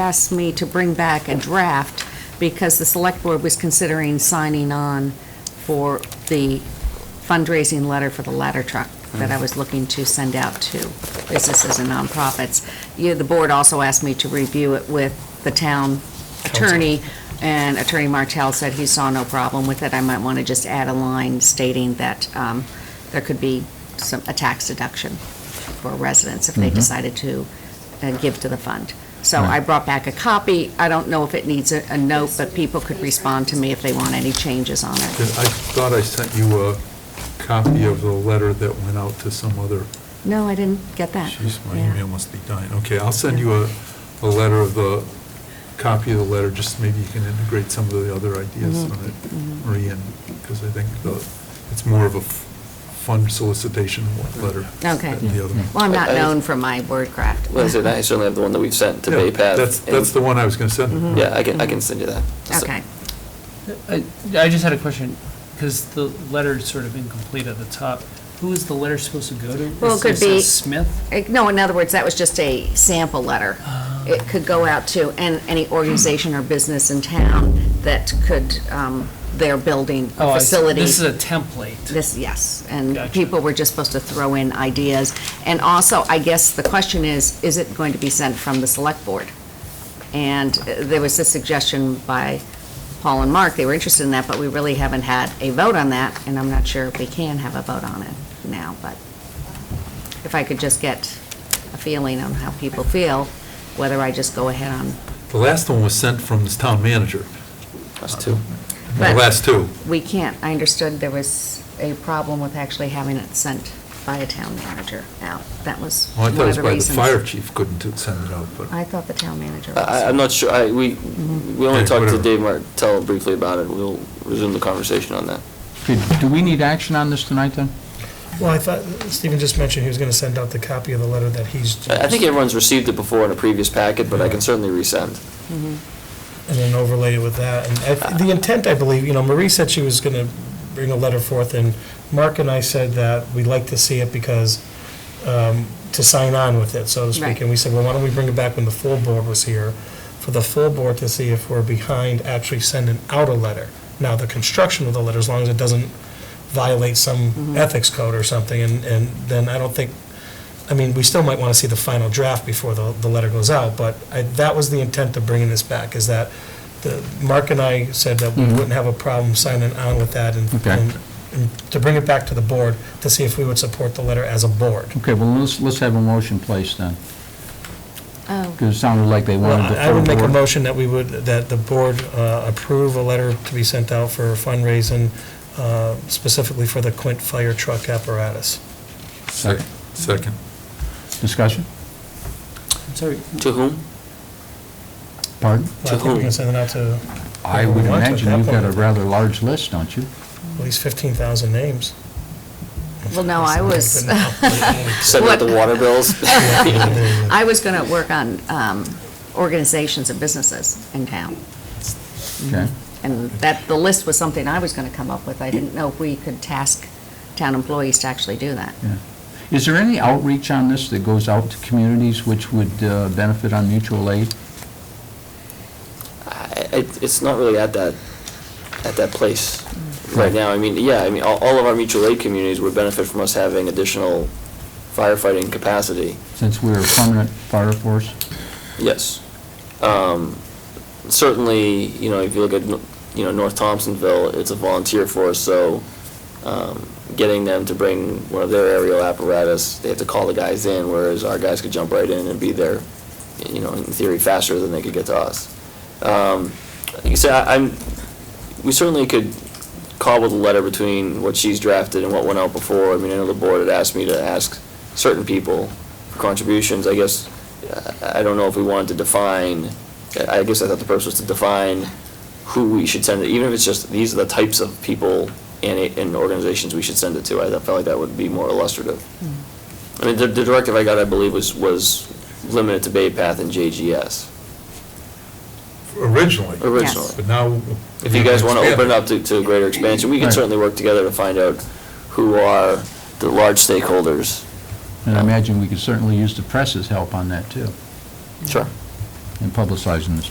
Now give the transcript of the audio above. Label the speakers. Speaker 1: asked me to bring back a draft because the select board was considering signing on for the fundraising letter for the ladder truck that I was looking to send out to businesses and nonprofits. Yeah, the board also asked me to review it with the town attorney, and Attorney Martell said he saw no problem with it. I might want to just add a line stating that um, there could be some, a tax deduction for residents if they decided to uh, give to the fund. So I
Speaker 2: Right.
Speaker 1: brought back a copy. I don't know if it needs a a note, but people could respond to me if they want any changes on it.
Speaker 3: I thought I sent you a copy of the letter that went out to some other,
Speaker 1: No, I didn't get that.
Speaker 3: jeez, my
Speaker 1: Yeah.
Speaker 3: email must be dying. Okay, I'll send you a, a letter of the, copy of the letter, just maybe you can integrate some of the other ideas
Speaker 1: Mhm,
Speaker 3: on it,
Speaker 1: mhm.
Speaker 3: Marie, and, because I think the, it's more of a f- fund solicitation letter.
Speaker 1: Okay.
Speaker 3: than the other one.
Speaker 1: Well, I'm not
Speaker 4: I- I-
Speaker 1: known for my wordcraft.
Speaker 4: Well, I said, I certainly have the one that we've sent to
Speaker 3: Yeah,
Speaker 4: Bay Path.
Speaker 3: That's,
Speaker 4: and- Mm-hmm.
Speaker 3: that's the one I was gonna send.
Speaker 4: Yeah, I can, I can send you that. So-
Speaker 1: Okay.
Speaker 5: I I just had a question, because the letter's sort of incomplete at the top. Who is the letter supposed to go to?
Speaker 1: Well, it could be-
Speaker 5: says Smith?
Speaker 1: Eh, No, in other words, that was just a sample letter.
Speaker 5: Ah.
Speaker 1: It could go out to an- any organization or business in town that could, um, their building
Speaker 5: Oh,
Speaker 1: or
Speaker 5: I see.
Speaker 1: facility.
Speaker 5: This is a template.
Speaker 1: This, yes, and
Speaker 5: Gotcha.
Speaker 1: people were just supposed to throw in ideas. And also, I guess the question is, is it going to be sent from the select board? And uh, there was a suggestion by Paul and Mark, they were interested in that, but we really haven't had a vote on that, and I'm not sure if we can have a vote on it now, but if I could just get a feeling on how people feel, whether I just go ahead on,
Speaker 3: The last one was sent from this town manager,
Speaker 4: That's two.
Speaker 3: the
Speaker 1: But-
Speaker 3: last two.
Speaker 1: we can't, I understood there was a problem with actually having it sent by a town manager out. That was
Speaker 3: Well, Oh, I
Speaker 1: one
Speaker 3: thought it
Speaker 1: of
Speaker 3: was
Speaker 1: the
Speaker 3: by the
Speaker 1: reasons.
Speaker 3: fire chief couldn't send it out, but.
Speaker 1: I thought the town manager
Speaker 4: I,
Speaker 1: was.
Speaker 4: I'm not sure, I, we, we
Speaker 3: Yeah,
Speaker 4: only talked to
Speaker 3: whatever.
Speaker 4: Dave Martell briefly about it. We'll resume the conversation on that.
Speaker 2: Okay, Do we need action on this tonight, then?
Speaker 6: Well, I thought Stephen just mentioned he was going to send out the copy of the letter that he's,
Speaker 4: I, I think
Speaker 6: and
Speaker 4: everyone's received it before in a previous packet, but I can certainly resend.
Speaker 6: then overlay it with that. And I- the intent, I believe, you know, Marie said she was going to bring a letter forth, and Mark and I said that we'd like to see it because, um, to sign on with it, so to
Speaker 1: Right.
Speaker 6: speak. And we said, well, why don't we bring it back when the full board was here, for the full board to see if we're behind actually sending out a letter. Now, the construction of the letter, as long as it doesn't violate some ethics code or something, and, and then I don't think, I mean, we still might want to see the final draft before the, the letter goes out, but I, that was the intent of bringing this back, is that the, Mark and I said that we
Speaker 2: Mhm.
Speaker 6: wouldn't have a problem signing on with that and,
Speaker 2: Okay.
Speaker 6: and- and to bring it back to the board to see if we would support the letter as a board.
Speaker 2: Okay, well, let's, let's have a motion placed then,
Speaker 1: Oh,
Speaker 2: because it sounded like they
Speaker 6: Well,
Speaker 2: wanted the
Speaker 6: I I would
Speaker 2: full
Speaker 6: make a
Speaker 2: board.
Speaker 6: motion that we would, that the board uh, approve a letter to be sent out for fundraising uh, specifically for the Quint Fire Truck apparatus.
Speaker 2: Second.
Speaker 3: Second.
Speaker 2: Discussion?
Speaker 5: I'm sorry,
Speaker 4: To whom?
Speaker 2: Pardon?
Speaker 6: Well, I think we
Speaker 4: whom?
Speaker 6: can send it out to
Speaker 2: I would
Speaker 6: Well, at
Speaker 2: imagine
Speaker 6: that
Speaker 2: you've got a
Speaker 6: point-
Speaker 2: rather large list, don't you?
Speaker 6: at least 15,000 names.
Speaker 1: well, no, I was,
Speaker 4: Send out the
Speaker 1: What?
Speaker 4: water bills?
Speaker 1: I was going to work on um, organizations and businesses in town.
Speaker 2: Okay.
Speaker 1: And that, the list was something I was going to come up with. I didn't know if we could task town employees to actually do that.
Speaker 2: Yeah. Is there any outreach on this that goes out to communities which would uh, benefit on mutual aid?
Speaker 4: I- it- It's not really at that, at that place right now. I mean, yeah, I mean, all all of our mutual aid communities would benefit from us having additional firefighting capacity.
Speaker 2: Since we're a permanent fire force,
Speaker 4: Yes. Um, Certainly, you know, if you look at, you know, North Thompsonville, it's a volunteer force, so um, getting them to bring one of their aerial apparatus, they have to call the guys in, whereas our guys could jump right in and be there, you know, in theory faster than they could get to us. Um, Like you said, I- I'm, we certainly could cobble the letter between what she's drafted and what went out before. I mean, I know the board had asked me to ask certain people for contributions. I guess, I I don't know if we wanted to define, I I guess I thought the purpose was to define who we should send it, even if it's just, these are the types of people and, it- and organizations we should send it to. I felt like that would be more illustrative. I mean, the the directive I got, I believe, was, was limited to Bay Path and JGS
Speaker 3: Originally,
Speaker 4: originally.
Speaker 3: but now.
Speaker 4: Oh. If you guys want to open it up to, to a greater expansion, we can
Speaker 2: Right.
Speaker 4: certainly work together to find out who are the large stakeholders.
Speaker 2: and I imagine we could certainly use the press's help on that, too.
Speaker 4: Sure.
Speaker 2: and publicizing this